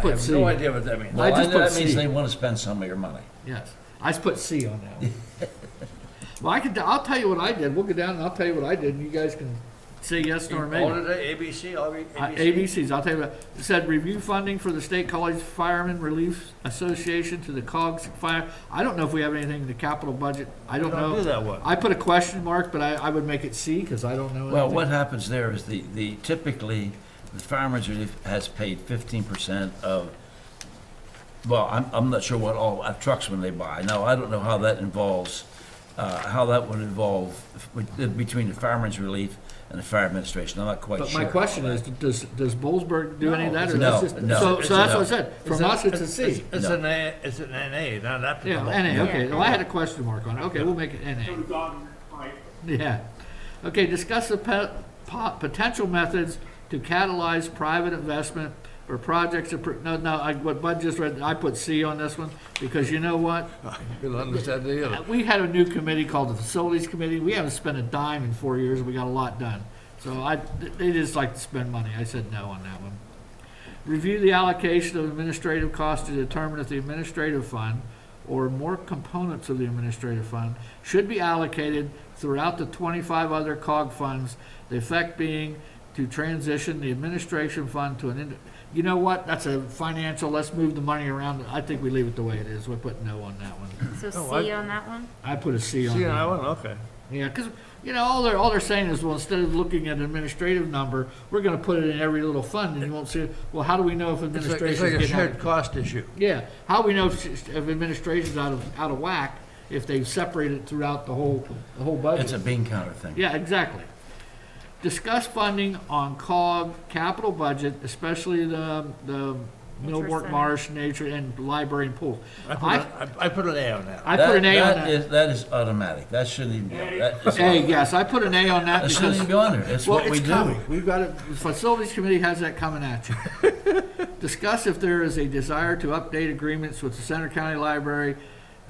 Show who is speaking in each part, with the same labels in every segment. Speaker 1: put
Speaker 2: have
Speaker 1: C.
Speaker 2: no idea what that means.
Speaker 1: I
Speaker 3: Well,
Speaker 1: just
Speaker 3: that
Speaker 1: put
Speaker 3: means
Speaker 1: C.
Speaker 3: they want to spend some of your money.
Speaker 1: Yes, I just put C on that one. Well, I could, I'll tell you what I did, we'll go down and I'll tell you what I did, and you guys can say yes or maybe.
Speaker 2: All today, ABC, all re-
Speaker 1: Uh,
Speaker 2: ABC.
Speaker 1: ABCs, I'll tell you about, it said review funding for the State College Firemen Relief Association to the COGS fire. I don't know if we have anything in the capital budget, I don't
Speaker 2: We
Speaker 1: know.
Speaker 2: don't do that one.
Speaker 1: I put a question mark, but I, I would make it C, because I don't know.
Speaker 3: Well,
Speaker 1: anything.
Speaker 3: what happens there is the, the typically, the farmer's relief has paid fifteen percent of, well, I'm, I'm not sure what all, uh, trucks when they buy. Now, I don't know how that involves, uh, how that would involve with- uh, between the farmer's relief and the fire administration. I'm not quite
Speaker 1: But
Speaker 3: sure.
Speaker 1: my question is, does, does Bollesburg do any of that? or
Speaker 3: No,
Speaker 1: that's just-
Speaker 3: no,
Speaker 1: So,
Speaker 3: it's
Speaker 1: so
Speaker 3: a
Speaker 1: that's
Speaker 3: no.
Speaker 1: what I said, from
Speaker 2: It's
Speaker 1: us, it's a
Speaker 2: it's-
Speaker 1: C.
Speaker 2: It's
Speaker 3: No.
Speaker 2: an A, it's an NA, not up to the.
Speaker 1: Yeah, NA, okay, well, I had a question mark on it, okay, we'll make it NA.
Speaker 4: Could have gotten, right,
Speaker 1: Yeah. Okay, discuss the pe- po- potential methods to catalyze private investment or projects, appro- no, no, I, what Bud just read, I put C on this one, because you know what?
Speaker 2: You'll understand the other.
Speaker 1: Uh, We had a new committee called the Facilities Committee, we haven't spent a dime in four years, and we got a lot done. So I, they just like to spend money, I said no on that one. Review the allocation of administrative costs to determine if the administrative fund or more components of the administrative fund should be allocated throughout the twenty-five other cog funds, the effect being to transition the administration fund to an, ind- you know what, that's a financial, let's move the money around, I think we leave it the way it is, we put no on that one.
Speaker 5: So
Speaker 2: No, I-
Speaker 5: C on that one?
Speaker 1: I put a C on
Speaker 2: See,
Speaker 1: that.
Speaker 2: I went, okay.
Speaker 1: Yeah, because, you know, all they're, all they're saying is, well, instead of looking at an administrative number, we're gonna put it in every little fund, and you won't see, it. well, how do we know if
Speaker 2: It's like- It's
Speaker 1: administration's
Speaker 2: like a
Speaker 1: getting out of
Speaker 2: shared cost issue.
Speaker 1: Yeah, how do we know if, s- if administration's out of, out of whack, if they've separated throughout the whole, the whole
Speaker 3: It's a
Speaker 1: budget?
Speaker 3: bean counter thing.
Speaker 1: Yeah, exactly. Discuss funding on COG capital budget, especially the, the
Speaker 5: Nature
Speaker 1: Millbrook
Speaker 5: Center.
Speaker 1: Marsh Nature and Library and Pool.
Speaker 2: I put,
Speaker 1: I,
Speaker 2: a- I I put an A on that.
Speaker 1: I put an A on
Speaker 3: That
Speaker 1: that.
Speaker 3: is, that is automatic. That shouldn't even, go. that is,
Speaker 1: A, yes, I put an A on that
Speaker 3: that
Speaker 1: because.
Speaker 3: shouldn't even be on there. It's
Speaker 1: Well,
Speaker 3: what we
Speaker 1: it's
Speaker 3: do.
Speaker 1: coming. We've got it, the facilities committee has that coming at you. Discuss if there is a desire to update agreements with the Center County Library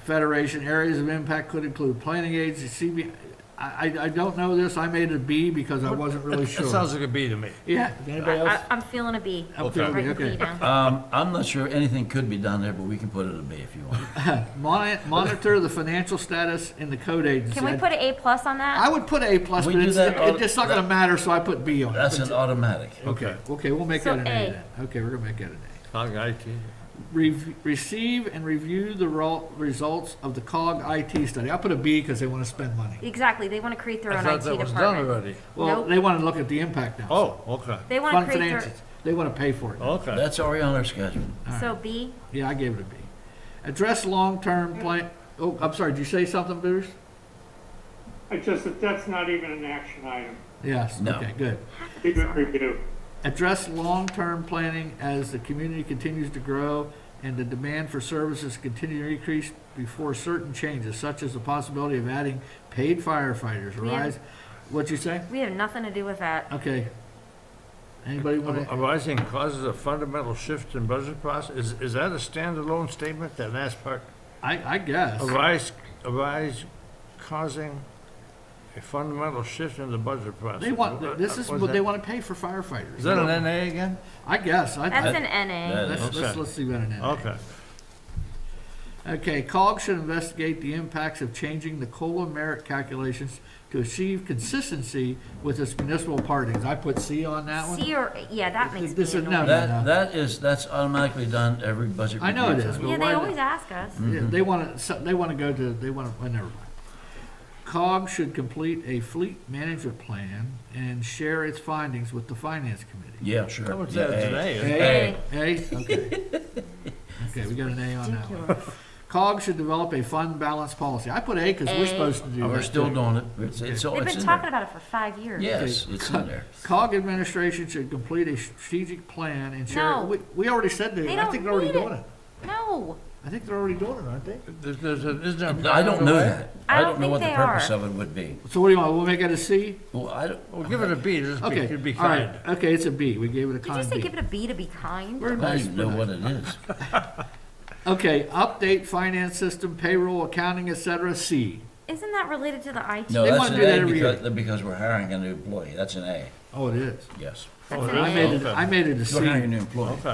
Speaker 1: Federation. Areas of impact could include planning aids, the CB, I, I- I don't know this, I made a B because I wasn't really
Speaker 2: It sounds
Speaker 1: sure.
Speaker 2: like a B to me.
Speaker 1: Yeah, anybody
Speaker 5: I-
Speaker 1: else?
Speaker 5: I- I'm feeling a B.
Speaker 1: I'm feeling a B,
Speaker 5: Writing
Speaker 1: okay.
Speaker 5: B down.
Speaker 3: Um, I'm not sure anything could be done there, but we can put it in B if you want.
Speaker 1: Moni- Monitor the financial status in the code agency.
Speaker 5: Can we put an A plus on
Speaker 1: I
Speaker 5: that?
Speaker 1: would put A plus,
Speaker 3: We
Speaker 1: but
Speaker 3: do
Speaker 1: it's,
Speaker 3: that all-
Speaker 1: it's just not gonna matter, so I put B on it.
Speaker 3: That's an automatic.
Speaker 1: Okay, okay, we'll make
Speaker 5: So
Speaker 1: that an A
Speaker 5: A.
Speaker 1: then. Okay, we're gonna make that an A.
Speaker 2: Cog IT.
Speaker 1: Rev- receive and review the ro- results of the COG IT study. I put a B because they want to spend money.
Speaker 5: Exactly, they want to create their
Speaker 2: I
Speaker 5: own
Speaker 2: thought
Speaker 5: IT
Speaker 2: that was done
Speaker 5: department.
Speaker 2: already.
Speaker 1: Well,
Speaker 5: Nope.
Speaker 1: they want to look at the impact now.
Speaker 2: Oh, okay,
Speaker 5: They want
Speaker 1: Fund
Speaker 5: to create their,
Speaker 1: finances. They want to pay for it.
Speaker 2: okay.
Speaker 3: That's already on our schedule.
Speaker 5: so B,
Speaker 1: Yeah, I gave it a B. Address long-term
Speaker 5: Mm.
Speaker 1: plan, oh, I'm sorry, did you say something, Bruce?
Speaker 4: I just, that that's not even an action item,
Speaker 1: Yes,
Speaker 3: No.
Speaker 1: okay, good.
Speaker 4: Keep it review.
Speaker 1: Address long-term planning as the community continues to grow and the demand for services continue to increase before certain changes, such as the possibility of adding paid firefighters,
Speaker 5: We have-
Speaker 1: rise. What'd you say?
Speaker 5: we have nothing to do with that.
Speaker 1: Okay. Anybody want to?
Speaker 2: Arising causes a fundamental shift in budget process, is, is that a standalone statement, that last part?
Speaker 1: I, I guess.
Speaker 2: Arise, arise causing a fundamental shift in the budget process.
Speaker 1: They want,
Speaker 2: What-
Speaker 1: this is
Speaker 2: what's
Speaker 1: what they
Speaker 2: that?
Speaker 1: want to pay for firefighters.
Speaker 2: Is that an NA again?
Speaker 1: I guess. I,
Speaker 5: That's
Speaker 1: I,
Speaker 5: an NA.
Speaker 3: That-
Speaker 1: let's, let's,
Speaker 2: Okay.
Speaker 1: let's see what it is.
Speaker 2: Okay.
Speaker 1: Okay, COG should investigate the impacts of changing the COLA merit calculations to achieve consistency with its municipal partings. I put C on that one.
Speaker 5: C or, yeah, that makes B
Speaker 1: This is-
Speaker 5: an
Speaker 1: no,
Speaker 5: order.
Speaker 3: That, that is, that's automatically done every budget
Speaker 1: I
Speaker 3: review.
Speaker 1: know it is.
Speaker 3: time.
Speaker 1: but
Speaker 5: Yeah,
Speaker 1: why
Speaker 5: they
Speaker 1: the-
Speaker 5: always ask us.
Speaker 1: Yeah,
Speaker 2: Mm-hmm.
Speaker 1: They want to, they want to go to, they want to, well, never mind. COG should complete a fleet management plan and share its findings with the finance committee.
Speaker 3: Yeah, sure.
Speaker 2: How much is
Speaker 3: Yeah,
Speaker 2: that
Speaker 3: A.
Speaker 2: today?
Speaker 1: A?
Speaker 5: A.
Speaker 1: A? Okay. Okay, we got an A on that one.
Speaker 5: Ridiculous.
Speaker 1: COG should develop a fund balance policy. I put A because we're
Speaker 5: A.
Speaker 1: supposed to do
Speaker 3: Oh,
Speaker 1: that.
Speaker 3: We're still
Speaker 1: too.
Speaker 3: doing it. It's, it's, all-
Speaker 5: They've
Speaker 3: it's
Speaker 5: been
Speaker 3: in
Speaker 5: talking
Speaker 3: there.
Speaker 5: about it for five years.
Speaker 3: Yes, it's in there.
Speaker 1: COG administration should complete a strategic plan and share.
Speaker 5: No.
Speaker 1: We, we already said that.
Speaker 5: They
Speaker 1: I think
Speaker 5: don't
Speaker 1: they're already
Speaker 5: need it.
Speaker 1: doing it.
Speaker 5: No,
Speaker 1: I think they're already doing it, aren't they?
Speaker 2: There's- there's a- Isn't there?
Speaker 3: I don't know that.
Speaker 5: I
Speaker 3: I
Speaker 5: don't
Speaker 3: don't know
Speaker 5: think
Speaker 3: what the
Speaker 5: they
Speaker 3: purpose
Speaker 5: are.
Speaker 3: of it would be.
Speaker 1: So what do you want? We'll make it a C?
Speaker 3: Well, I don't.
Speaker 2: Well, give it a B, just be,
Speaker 1: Okay.
Speaker 2: it'd be
Speaker 1: all right.
Speaker 2: kind.
Speaker 1: Okay, it's a B. We gave it a
Speaker 5: did you
Speaker 1: con
Speaker 5: say
Speaker 1: B.
Speaker 5: give it a B to be kind?
Speaker 1: We're
Speaker 3: I don't
Speaker 1: nice.
Speaker 3: even know what it is.
Speaker 1: Okay, update finance system, payroll, accounting, et cetera, C.
Speaker 5: Isn't that related to the IT?
Speaker 3: No,
Speaker 1: They
Speaker 3: that's
Speaker 1: wanna
Speaker 3: an
Speaker 1: do that
Speaker 3: A
Speaker 1: every year.
Speaker 3: because, because we're hiring a new employee. That's an A,
Speaker 1: Oh, it is.
Speaker 3: yes.
Speaker 5: That's an
Speaker 2: really?
Speaker 3: Oh,
Speaker 1: I
Speaker 5: A.
Speaker 1: made it, I made it a C.
Speaker 3: We're hiring a new employee.